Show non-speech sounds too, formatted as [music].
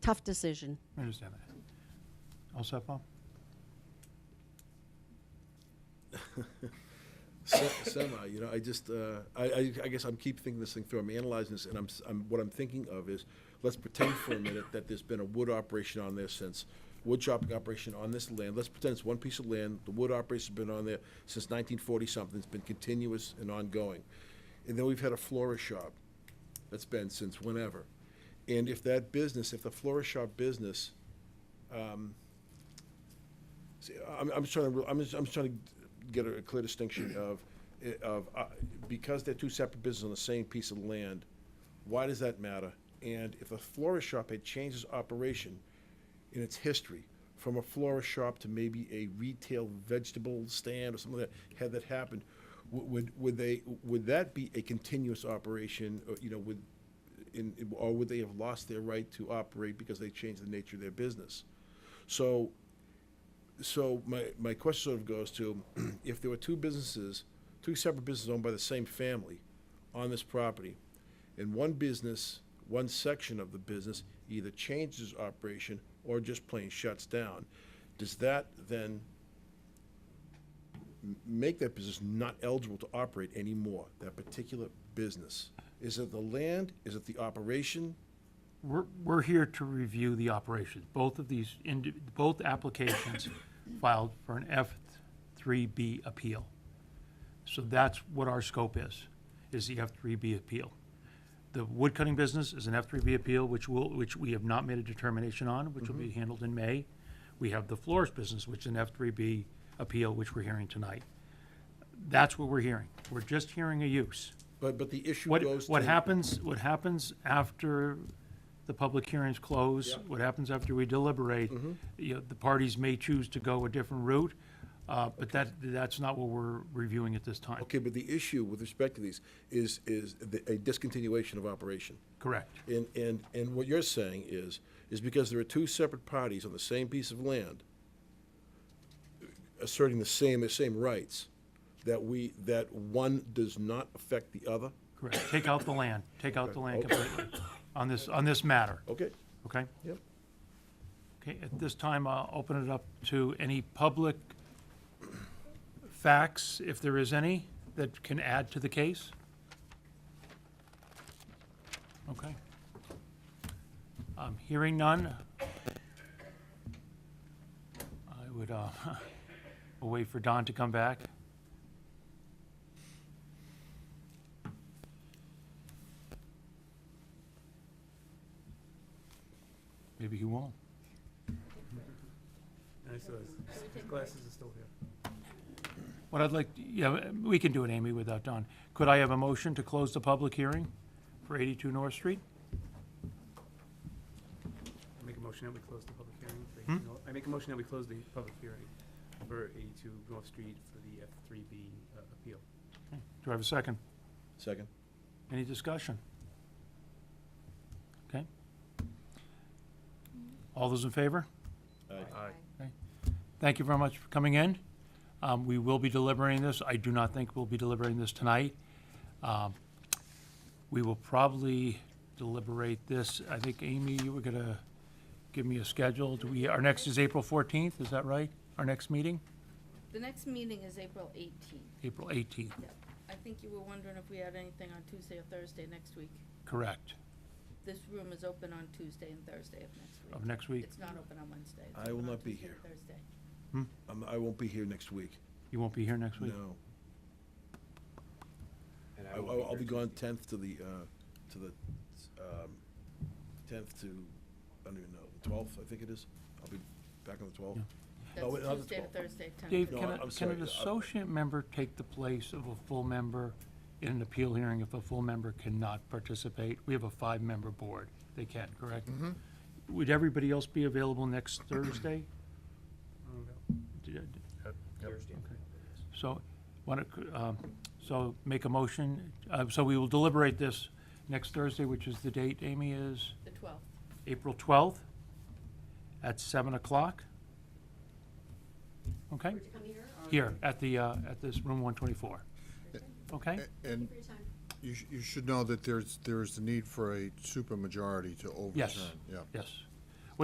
tough decision. I understand that. All set, Paul? Se- Semi, you know, I just, uh, I, I, I guess I'm keep thinking this thing through, I'm analyzing this, and I'm, s- I'm, what I'm thinking of is, let's pretend for a minute that there's been a wood operation on there since, wood chopping operation on this land, let's pretend it's one piece of land, the wood operation's been on there since nineteen forty something, it's been continuous and ongoing. And then we've had a florist shop, that's been since whenever. And if that business, if the florist shop business See, I'm, I'm just trying to, re- I'm just, I'm just trying to get a clear distinction of, of, uh, because they're two separate businesses on the same piece of land, why does that matter? And if a florist shop had changed its operation in its history, from a florist shop to maybe a retail vegetable stand or something like that, had that happened, w- would, would they, would that be a continuous operation, or, you know, would, in, or would they have lost their right to operate because they changed the nature of their business? So, so my, my question sort of goes to, [clears throat] if there were two businesses, two separate businesses owned by the same family on this property, and one business, one section of the business either changes operation or just plain shuts down, does that then m- make that business not eligible to operate anymore, that particular business? Is it the land? Is it the operation? We're, we're here to review the operations. Both of these, indi- both applications filed for an F3B appeal. So that's what our scope is, is the F3B appeal. The wood cutting business is an F3B appeal, which will, which we have not made a determination on, which will be handled in May. We have the florist business, which is an F3B appeal, which we're hearing tonight. That's what we're hearing. We're just hearing a use. But, but the issue What, goes to. what happens, what happens after the public hearings close, Yeah. Mm-hmm. what happens after we deliberate, you know, the parties may choose to go a different route, uh, but that, that's not what we're reviewing at this time. Okay, but the issue with respect to these is, is the- a discontinuation of operation. Correct. And, and, and what you're saying is, is because there are two separate parties on the same piece of land asserting the same, the same rights, that we, that one does not affect the other? Correct. Take out the land, take out the land completely on this, on this matter, Okay, okay? yep. Okay, at this time, I'll open it up to any public facts, if there is any, that can add to the case. Okay. Um, Hearing none, I would uh, [laughs] we'll wait for Don to come back. Maybe he won't. And I saw his his glasses are still here. What I'd like, yeah, we can do it, Amy, without Don. Could I have a motion to close the public hearing for 82 North Street? I make a motion that we close the public hearing for, eighty Nor- I make a motion that we close the public hearing for eighty-two North Street for the F three B uh, appeal. Do I have a second? Second? Any discussion? Okay. All those in favor? Aye. Thank you very much for coming in. Um, We will be deliberating this. I do not think we'll be deliberating this tonight. Um, We will probably deliberate this, I think, Amy, you were going to give me a schedule. Do we, our next is April 14th, is that right? Our next meeting? The next meeting is April 18th. April 18th, I think you were wondering if we had anything on Tuesday or Thursday next week. correct, This room is open on Tuesday and Thursday of next week. of next week. It's not open on Wednesday. It's I will open on not be Tuesday and here. Thursday. I'm- I won't be here next week, You won't be here next week? no. And I- I I'll, will I'll be be gone tenth to the, uh, to the, um, tenth to, I don't even know, the twelfth, I think it is. I'll be back on the twelfth. Oh, wait, not the That's Tuesday to 12th. Thursday, 10. Dave, No, can I- a- I'm can sorry, uh, an I- associate member take the place of a full member in an appeal hearing if a full member cannot participate? We have a five-member board. They can, correct? Mm-hmm. Would everybody else be available next Thursday? Oh, no. Did- Thursday. So, want to, so make a motion, uh, so we will deliberate this next Thursday, which is the date, Amy, is The 12th. April 12th at 7 o'clock. Okay? Here, at the, uh, at this room 124. Okay? A- And you, sh- you should know that there's, there's the need for a supermajority to overturn. Yes. Yeah. Yes.